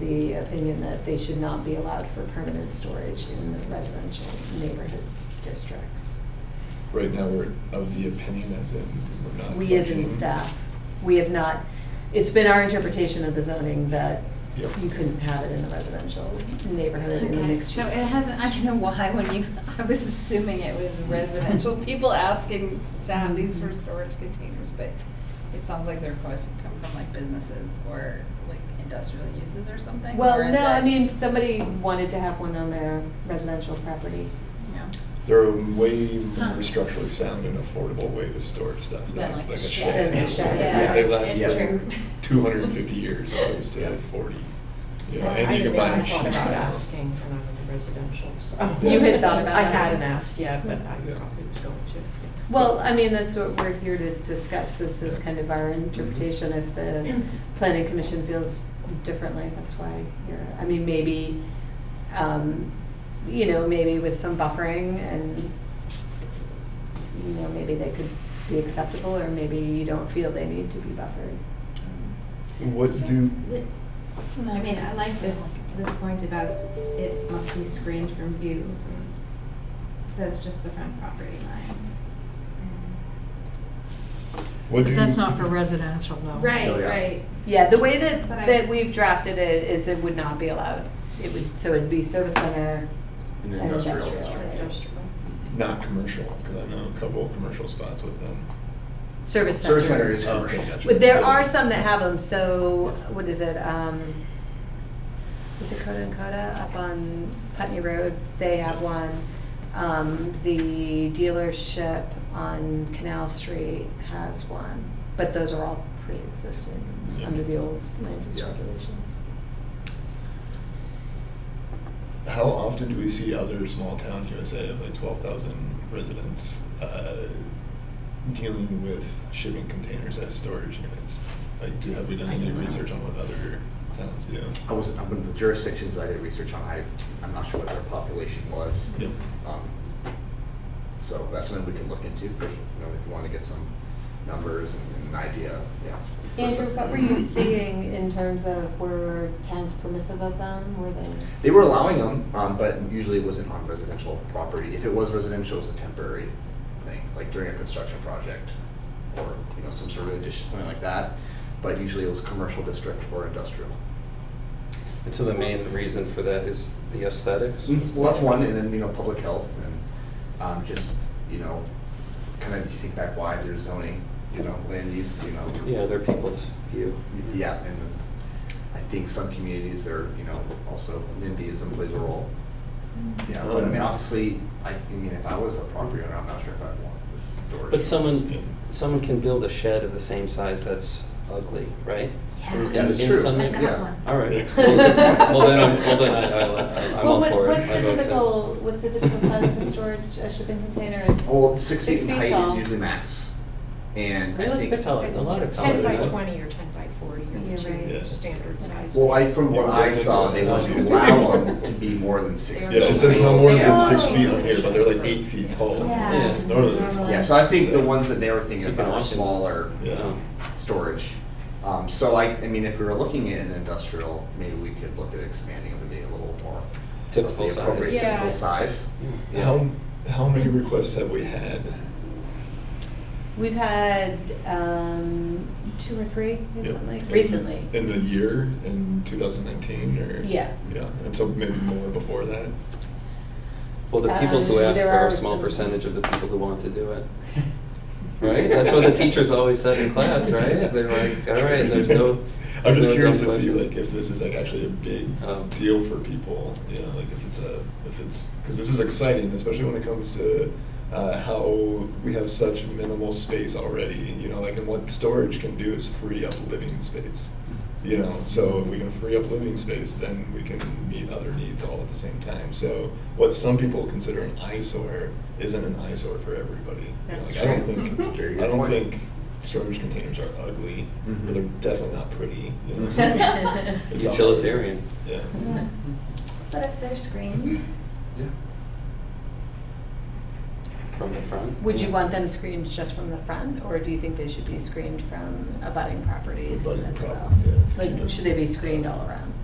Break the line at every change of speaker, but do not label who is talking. the opinion that they should not be allowed for permanent storage in the residential neighborhood districts.
Right now, we're of the opinion as in we're not.
We as in
budgeting.
staff, we have not, it's been our interpretation of the zoning that
Yep.
you couldn't have it in the residential neighborhood in the
Okay,
mixed
so
use.
it hasn't, I don't know why when you, I was assuming it was residential people asking to have
Mm-hmm.
these for storage containers, but it sounds like the requests have come from like businesses or like industrial uses or something, or
Well,
is
no, I
it-
mean, somebody wanted to have one on their residential property.
No.
They're a way
Huh.
more structurally sound and affordable way to store stuff
Than
than
like a
like a
shed.
shed.
Than a shed,
They- They
yeah.
last
It's
like
true.
two hundred and fifty years opposed to forty. You know, and you can buy
I
them
thought
cheap
about
now.
asking for them in the residential, so.
You had
thought about
I
asking.
hadn't asked yet, but I
Yeah.
probably was going to.
Well, I mean, that's what we're here to discuss, this is kind of
Mhm.
our interpretation, if the planning commission feels differently, that's why you're, I mean, maybe, um, you know, maybe with some buffering and, you know, maybe they could be acceptable, or maybe you don't feel they need to be buffered.
So,
What do,
the- no, I mean, I like this, this point about it must be screened from view. It Says just the front property line.
what do?
But that's not for residential though.
Right,
yeah.
right.
Yeah, the way that,
But I-
that we've drafted it is it would not be allowed, it would, so it'd be service center
An
and
industrial
industrial.
district.
Not commercial, because I know a couple of commercial spots with them.
Service center.
Service center is
Oh,
commercial.
okay, gotcha.
Well, There are some that have them, so, what is it, um, is it Coda and Coda up on Putney Road? They have one. Um, the dealership on Canal Street has one, but those are all pre-existing
Yeah.
under the old land use
Yeah.
regulations.
How often do we see other small town USA of like twelve thousand residents uh, dealing with shipping containers as storage units? Like, do have we done
I
any
don't know.
research on what other towns do?
I wasn't, I'm the jurisdictions I did research on, I, I'm not sure what their population was.
Yep.
Um, So that's something we can look into, for- you know, if you wanna get some numbers and and an idea, yeah.
Andrew, what were you seeing in terms of were towns permissive of them, were they?
They were allowing them, um, but usually it wasn't on residential property. If it was residential, it was a temporary thing, like during a construction project or, you know, some sort of addition, something like that. But usually it was commercial district or industrial.
And so the main reason for that is the aesthetics?
Mm, Well, that's one, and then, you know, public health and, um, just, you know, kind of you think back why there's zoning, you know, land use, you know.
Yeah, they're people's view.
Yeah, and I think some communities are, you know, also NIMBYism plays a role. Yeah, but I mean, obviously, I, I mean, if I was a property owner, I'm not sure if I'd want this storage.
But someone, someone can build a shed of the same size that's ugly, right? In-
That is
in
true.
some-
I got
yeah.
one.
All right.
Well,
Well, then, I'm- well, then I, I left. I'm- I'm all for it.
What's
I
the
vote so.
typical, what's the typical size of a storage, a shipping container? It's
Well, six feet in height
tall.
is usually max, and I think.
Really? They're
Oh,
taller,
It's
a lot of taller.
ten by
than that.
twenty or ten by forty or
Yeah,
the
right.
Yeah.
two standard sizes.
Well, I, from what I saw, they want to allow them to be more than six
Yeah,
feet.
Yeah, it says no more than six
Oh.
feet on here, but they're like eight feet tall.
Yeah.
Normally.
Yeah, so I think the ones that they were thinking about are smaller
Supermarket.
Yeah.
Oh.
storage. Um, so I, I mean, if we were looking at an industrial, maybe we could look at expanding it to be a little more. of the
Typical size.
Appropriate
Yeah.
typical size.
How, how many requests have we had?
We've had um, two or three recently.
Yep.
Recently.
In the year, in two thousand nineteen, or?
Yeah.
Yeah, and so maybe more before that?
Well, the people who
Um,
ask
there
are
are
a small
some-
percentage of the people who want to do it. Right? That's what the teachers always said in class, right? They're like, all right, there's no.
I'm
there's
just
no
curious to
dumb
see
questions."
like if this is like actually a big
Oh.
deal for people, you know, like if it's a, if it's, because this is exciting, especially when it comes to uh, how we have such minimal space already, you know, like and what storage can do is free up living space. You know, so if we can free up living space, then we can meet other needs all at the same time. So what some people consider an eyesore isn't an eyesore for everybody.
That's
Like, I don't
true.
think,
Very good
I don't
point.
think storage containers are ugly, but
Mhm.
they're definitely not pretty. You know, so it's- it's awkward.
Utilitarian.
Yeah.
But if they're screened,
From the front.
Would you want them screened just from the front, or do you think they should be screened from abutting properties
Abutting
as well?
prop- yeah, it's
Like,
cheaper.
should they be screened all around?